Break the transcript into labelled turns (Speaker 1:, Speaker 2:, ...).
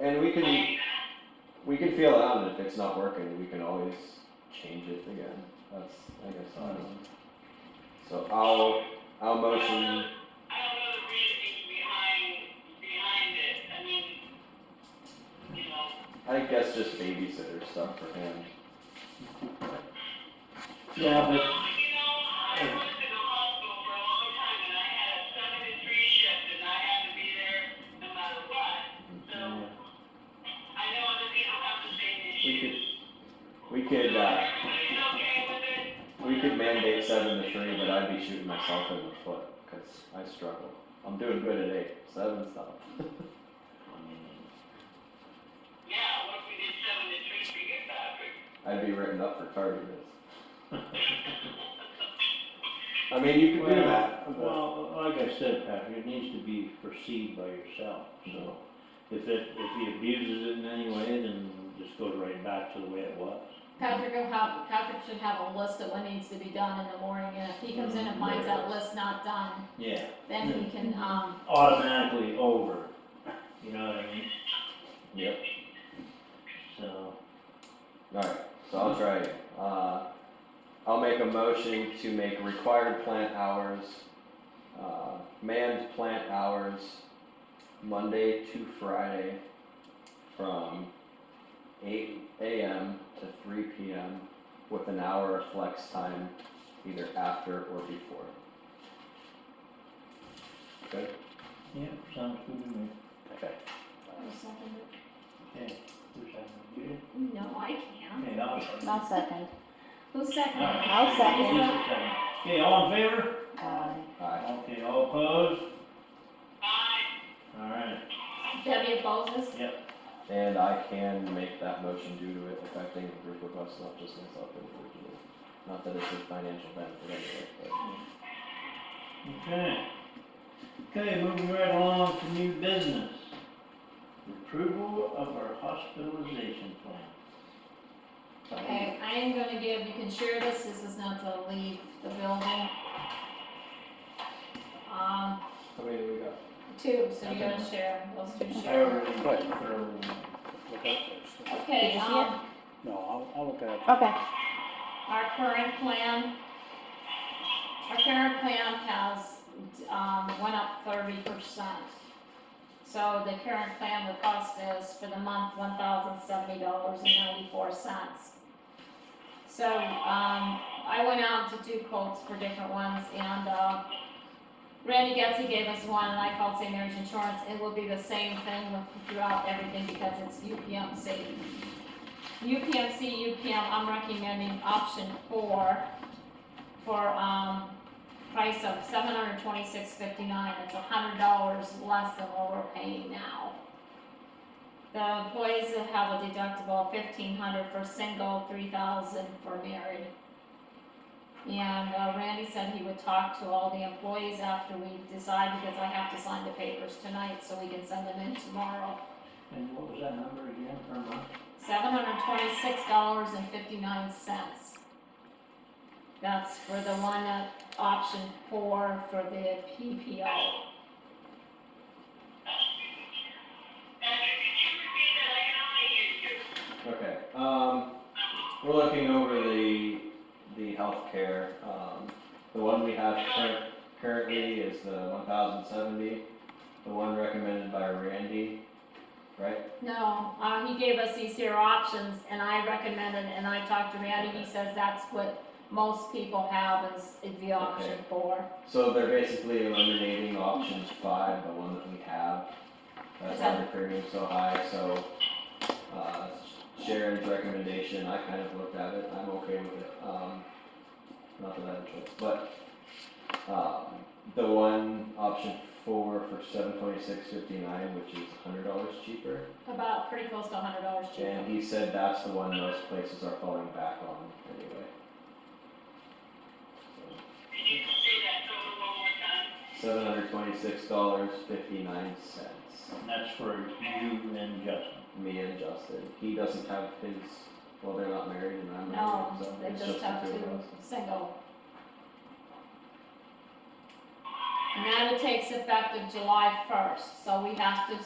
Speaker 1: And we can, we can feel it out, and if it's not working, we can always change it again, that's, I guess, all. So I'll, I'll motion,
Speaker 2: I don't know the reasoning behind, behind it, I mean, you know,
Speaker 1: I guess just babysitter stuff for him.
Speaker 3: Yeah,
Speaker 2: Well, you
Speaker 3: but
Speaker 2: know, I worked in the hospital for a long time and I had a seven to three shift and I had to be there no matter what. So I know other people have the same issues.
Speaker 1: We could, uh,
Speaker 2: Everybody's okay with it?
Speaker 1: we could mandate seven to three, but I'd be shooting myself in the foot, cause I struggle. I'm doing good at eight, seven's not.
Speaker 2: Yeah, what if we did seven to three for you, Patrick?
Speaker 1: I'd be written up for tardiness. I mean, you could do that, but-
Speaker 3: Well, like I said, Patrick, it needs to be perceived by yourself, so if it, if he abuses it in any way, then just goes right back to the way it was.
Speaker 4: Patrick will have, Patrick should have a list of what needs to be done in the morning, and if he comes in and finds that list not done,
Speaker 3: Yeah,
Speaker 4: then he can, um,
Speaker 3: automatically over, you know what I mean?
Speaker 1: Yep.
Speaker 3: So,
Speaker 1: Alright, so I'll try it. Uh, I'll make a motion to make required plant hours, uh, manned plant hours, Monday to Friday from eight AM to three PM with an hour of flex time either after or before. Good?
Speaker 3: yeah, sounds good to me.
Speaker 1: Okay.
Speaker 3: Okay, who's that? You?
Speaker 4: no, I can't.
Speaker 3: Okay, I'll.
Speaker 5: I'll second.
Speaker 4: Who's second?
Speaker 3: Alright.
Speaker 5: I'll second.
Speaker 3: Lisa second. Okay, all in favor?
Speaker 5: Um,
Speaker 1: Aye.
Speaker 3: Okay, all opposed?
Speaker 2: Aye,
Speaker 3: Alright,
Speaker 4: Debbie opposes?
Speaker 1: And I can make that motion due to it affecting the group of us, not just myself individually. Not that it's a financial benefit anyway, but.
Speaker 3: okay. Okay, moving right along to new business. Approval of our hospitalization plan.
Speaker 1: um,
Speaker 4: Okay, I am gonna give, you can share this, this is not to leave the building. Um,
Speaker 1: How many do we got?
Speaker 4: two, so you're gonna share, those two
Speaker 6: I
Speaker 4: share.
Speaker 6: already
Speaker 7: Right.
Speaker 6: went through. the papers.
Speaker 4: Okay,
Speaker 5: Did you see
Speaker 4: um,
Speaker 7: No, I'll, I'll look at it.
Speaker 5: Okay,
Speaker 4: Our current plan, our current plan has, um, went up thirty percent. So the current plan would cost us for the month one thousand seventy dollars and ninety-four cents. So, um, I went out to do quotes for different ones and, uh, Randy Getzey gave us one and I called St. Mary's Insurance. It will be the same thing with- throughout everything because it's UPMC. UPMC, UPM, I'm recommending option four for, um, price of seven hundred twenty-six fifty-nine, it's a hundred dollars less than what we're paying now. The employees will have a deductible of fifteen hundred for single, three thousand for married. And uh, Randy said he would talk to all the employees after we decide, because I have to sign the papers tonight, so we can send them in tomorrow.
Speaker 3: And what was that number again per month?
Speaker 4: Seven hundred twenty-six dollars and fifty-nine cents. That's for the one at option four for the PPO.
Speaker 2: Patrick, could you repeat that, I can only hear you.
Speaker 1: Okay, um, we're looking over the, the healthcare, um, the one we have current, currently is the one thousand seventy. The one recommended by Randy, right?
Speaker 4: No, uh, he gave us these here options and I recommended, and I talked to Randy, he says that's what most people have is, is the option
Speaker 1: Okay.
Speaker 4: four.
Speaker 1: So they're basically eliminating options five, the one that we have. That's why the premium's so high, so, uh, Sharon's recommendation, I kind of looked at it, I'm okay with it, um, not that I have a choice, but, um, the one, option four for seven twenty-six fifty-nine, which is hundred dollars cheaper.
Speaker 4: About pretty close to a hundred dollars cheaper.
Speaker 1: And he said that's the one most places are falling back on anyway.
Speaker 2: Could you say that total one more time?
Speaker 1: Seven hundred twenty-six dollars fifty-nine cents.
Speaker 3: And that's for you and Justin.
Speaker 1: me and Justin. He doesn't have his, well, they're not married and I'm
Speaker 4: No,
Speaker 1: married, so
Speaker 4: they
Speaker 1: it's
Speaker 4: just
Speaker 1: just the
Speaker 4: have
Speaker 1: two
Speaker 4: two
Speaker 1: of us.
Speaker 4: single. And that takes effective July first, so we have to